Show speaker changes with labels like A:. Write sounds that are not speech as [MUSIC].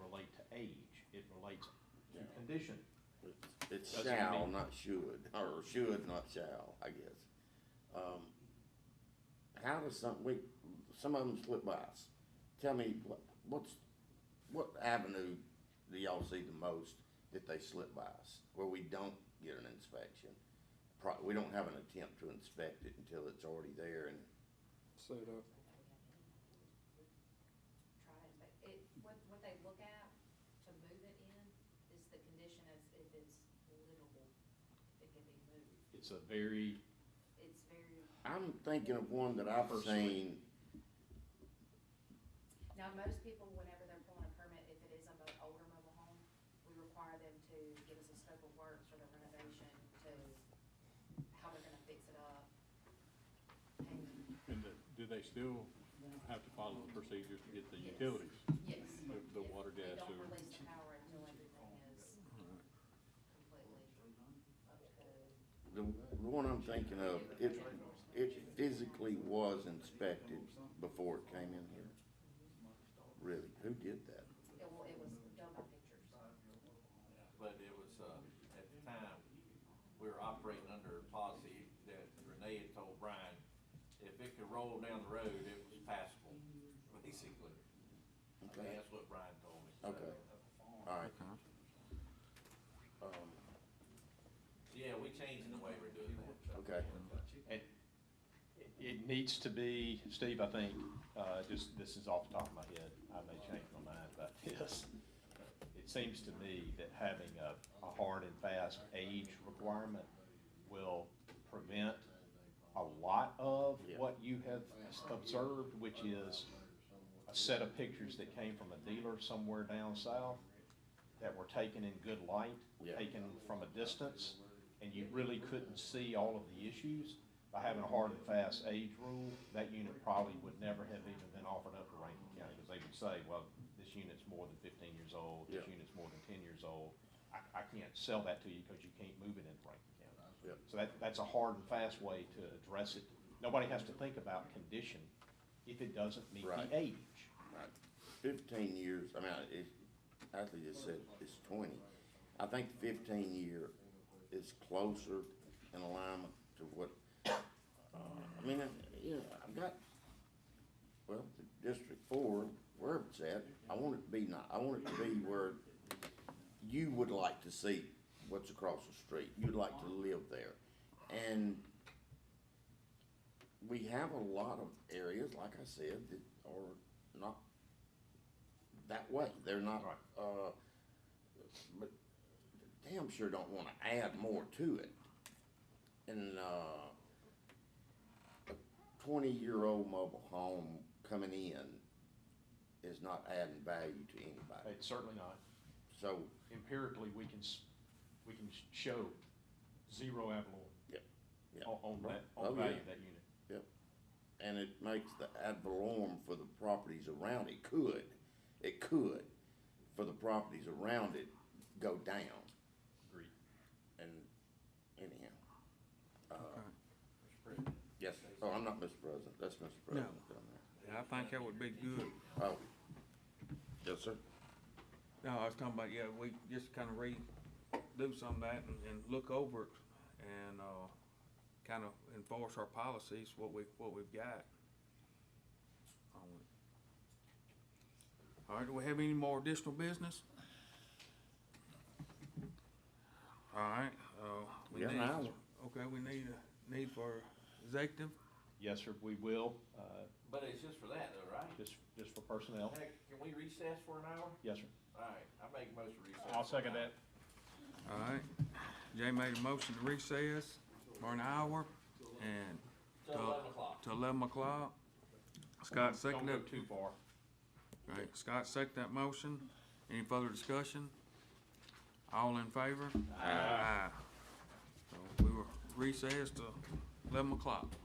A: Yeah.
B: condition.
A: It's
B: Doesn't
A: shall,
B: mean-
A: not should, [LAUGHS] or should, not shall, I guess. Um, how does some, we, some of them slip by us. Tell me, what, what's, what avenue do y'all see the most that they slip by us? Where we don't get an inspection? Pro, we don't have an attempt to inspect it until it's already there and
C: set up.
D: try it, but it, what, what they look at to move it in is the condition of if it's livable, if it can be moved.
B: It's a very,
D: It's very,
A: I'm thinking of one that I've
B: Personally.
A: seen,
D: now, most people, whenever they're pulling a permit, if it is a mo- older mobile home, we require them to give us a scope of work for the renovation to how they're gonna fix it up. And,
E: And the- do they still have to follow the procedures to get the
D: Yes.
E: utilities?
D: yes.
E: The- the
D: if
E: water, gas,
D: We
E: sewer.
D: don't release the power until everything is completely up to code.
A: the, the one I'm thinking of, it, it physically was inspected before it came in here. Really, who did that?
D: It wa- it was done by pictures.
F: But it was, uh, at the time, we were operating under a policy that Renee had told Brian, if it could roll down the road, it was passable, basically. I think
A: Okay.
F: that's what Brian told me.
A: Okay. Alright. Um,
F: So, Yeah, we changed the way we're doing that. so.
A: Okay.
B: it, it needs to be, Steve, I think, uh, just, this is off the top of my head, I may change my mind
A: [LAUGHS]
B: about this. It seems to me that having a, a hard and fast age requirement will prevent a lot of
A: Yeah.
B: what you have s- observed, which is a set of pictures that came from a dealer somewhere down south that were taken in good light,
A: Yeah.
B: taken from a distance, and you really couldn't see all of the issues. By having a hard and fast age rule, that unit probably would never have even been offered up to Rankin County, because they would say, well, this unit's more than fifteen years old, this
A: Yeah.
B: unit's more than ten years old. I, I can't sell that to you because you can't move it into Rankin County.
A: Yep.
B: So that, that's a hard and fast way to address it. Nobody has to think about condition if it doesn't meet
A: Right.
B: the age.
A: right. Fifteen years, I mean, I- it, actually just said it's twenty. I think fifteen year is closer in alignment to what, uh, I mean, I- yeah, I've got, well, the District Four, wherever it's at, I want it to be not, I want it to be where you would like to see what's across the street. You'd like to live there. And we have a lot of areas, like I said, that are not that way. They're not,
B: Right.
A: uh, but damn sure don't wanna add more to it. And, uh, a twenty-year-old mobile home coming in is not adding value to anybody.
B: It's certainly not.
A: So,
B: empirically, we can, s- we can sh- show zero avalon
A: Yep, yep.
B: on, on that,
A: Oh,
B: on
A: yeah.
B: value of that unit.
A: and it makes the ad valorem for the properties around it could, it could, for the properties around it go down
B: Agreed.
A: and anyhow. uh, Yes, oh, I'm not Mr. President, that's Mr. President down
C: I think that would be good.
A: there. Oh, yes, sir.
C: No, I was talking about, yeah, we just kinda redo some of that and, and look over it and, uh, kinda enforce our policies, what we, what we've got. on it. All right, do we have any more additional business? All right, uh,
A: We
C: we
A: got
C: need,
A: an hour.
C: okay, we need a, need for executive,
B: Yes, sir, we will, uh,
F: But it's just for that though, right?
B: just, just for personnel.
F: Heck, can we recess for an hour?
B: Yes, sir.
F: Alright, I make most of recess.
E: I'll
F: for an
E: second
F: hour.
E: that.
C: all right. Jay made a motion to recess for an hour and
F: Till eleven o'clock.
C: to eleven o'clock. Scott
B: Don't go
C: seconded,
B: too far.
C: right, Scott seconded that motion. Any further discussion? All in favor? Aye. So we were recessed to eleven o'clock.